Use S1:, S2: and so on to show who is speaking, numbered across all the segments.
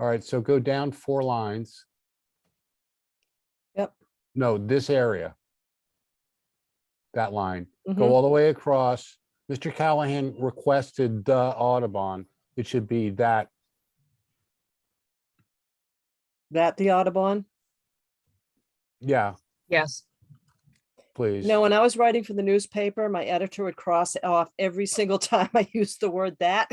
S1: All right, so go down four lines.
S2: Yep.
S1: No, this area. That line,
S2: Mhm.
S1: go all the way across. Mr. Callahan requested the Audubon. It should be that,
S2: That the Audubon?
S1: yeah,
S3: Yes.
S1: please.
S2: No, when I was writing for the newspaper, my editor would cross off every single time I used the word that.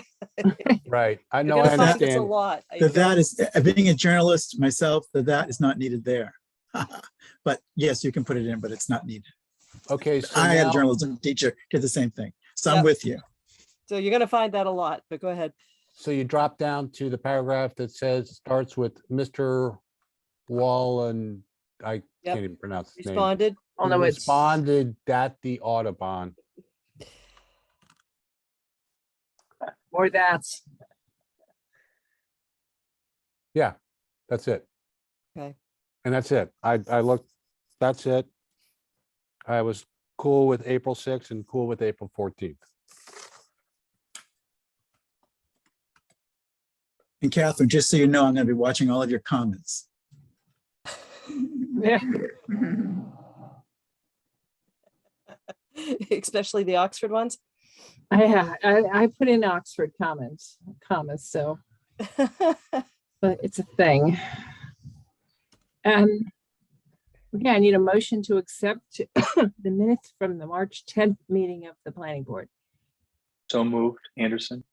S1: Right, I
S2: You're
S1: know, I
S2: gonna find this A
S1: understand.
S2: lot. I
S4: The
S2: don't-
S4: that is, uh, being a journalist myself, the that is not needed there. But yes, you can put it in, but it's not needed.
S1: Okay, so
S4: I had a
S1: now-
S4: journalism teacher, did the same thing. So
S2: Yeah.
S4: I'm with you.
S2: So you're gonna find that a lot, but go ahead.
S1: so you drop down to the paragraph that says, starts with Mr. Wall and I can't even pronounce his name.
S2: Responded.
S3: Oh,
S1: who
S3: no, it's, I
S1: Responded that the Audubon.
S3: or that's,
S1: Yeah, that's it.
S2: Okay.
S1: And that's it. I, I looked, that's it. I was cool with April sixth and cool with April fourteenth.
S4: And Catherine, just so you know, I'm going to be watching all of your comments.
S3: yeah,
S2: Especially the Oxford ones.
S3: I, I put in Oxford comments, commas, so, but it's a thing. Um, okay, I need a motion to accept the minutes from the March tenth meeting of the planning board.
S5: So moved, Anderson.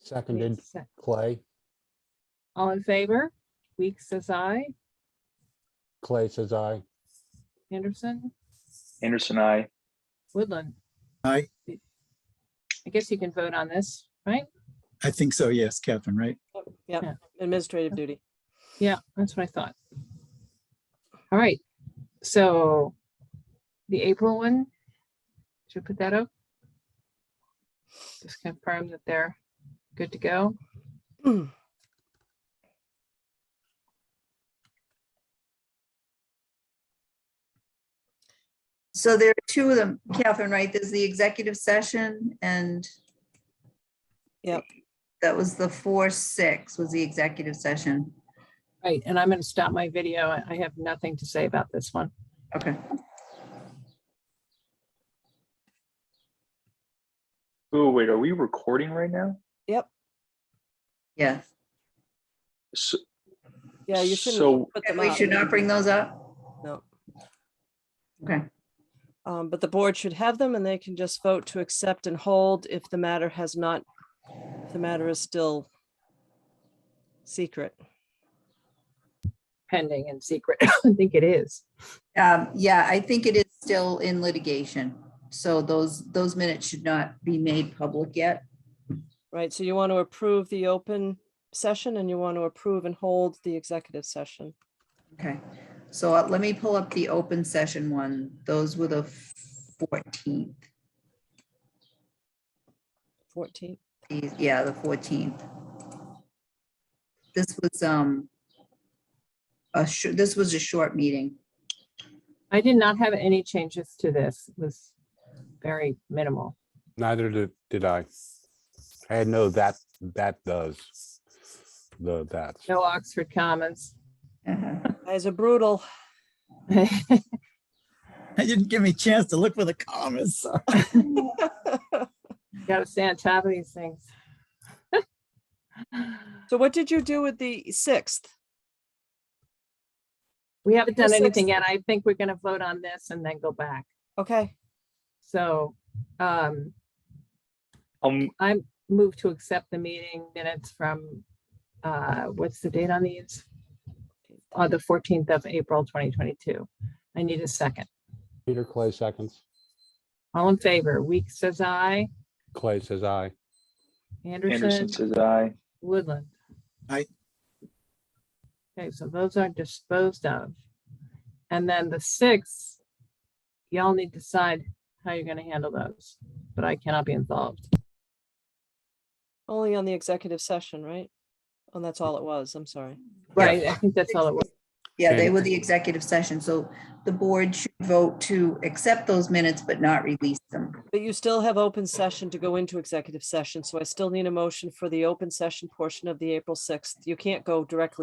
S1: Seconded
S3: Se-
S1: Clay.
S3: uh, All in favor? Weeks says aye.
S1: Clay says I.
S3: Anderson,
S5: Anderson, I.
S3: Woodland.
S4: Aye.
S3: I guess you can vote on this, right?
S4: I think so, yes, Catherine, right?
S2: Yep,
S3: Yeah.
S2: administrative duty.
S3: Yeah, that's what I thought. All right, so the April one, should we put that up? Just confirm that they're good to go.
S6: So there are two of them, Catherine, right? There's the executive session and
S2: Yep.
S6: that was the four, six was the executive session.
S3: Right, and I'm gonna stop my video. I I have nothing to say about this one.
S6: Okay.
S5: Oh, wait, are we recording right now?
S6: Yeah.
S5: So,
S2: Yeah, you shouldn't
S5: so
S2: put
S6: And
S2: them
S6: we
S2: up.
S6: should not bring those up?
S2: No.
S6: Okay.
S2: Um, but the board should have them and they can just vote to accept and hold if the matter has not, if the matter is still secret.
S3: Pending and secret. I think it is.
S6: Um, yeah, I think it is still in litigation. So those, those minutes should not be made public yet.
S2: Right, so you want to approve the open session and you want to approve and hold the executive session.
S6: Okay. So uh, let me pull up the open session one. Those were the fourteenth.
S2: Fourteen,
S6: These- Yeah, the fourteenth. This was, um, a short, this was a short meeting.
S3: I did not have any changes to this. It was very minimal.
S1: Neither did, did I. I had no that, that does. The, that.
S3: No Oxford comments.
S6: Uh-huh.
S2: guys are brutal.
S4: I didn't give me a chance to look for the comments. sorry.
S3: Gotta stay on top of these things.
S2: So what did you do with the sixth?
S3: We haven't done
S2: Just like-
S3: anything yet. I think we're gonna vote on this and then go back.
S2: Okay,
S3: So um,
S5: um,
S3: I move to accept the meeting minutes from, uh, what's the date on these? Uh, the fourteenth of April, twenty twenty-two. I need a second.
S1: Peter Clay seconds.
S3: All in favor, Weeks says aye,
S1: Clay says I.
S3: Anderson,
S5: Anderson says I.
S3: Woodland.
S4: Aye.
S3: Okay, so those are disposed of. And then the six, y'all need to decide how you're gonna handle those, but I cannot be involved.
S2: only on the executive session, right? And that's all it was, I'm sorry.
S3: Right, I think that's all it was.
S6: Yeah, they
S1: Okay.
S6: were the executive session, so the board should vote to accept those minutes but not release them.
S2: But you still have open session to go into executive session, so I still need a motion for the open session portion of the April sixth. You can't go directly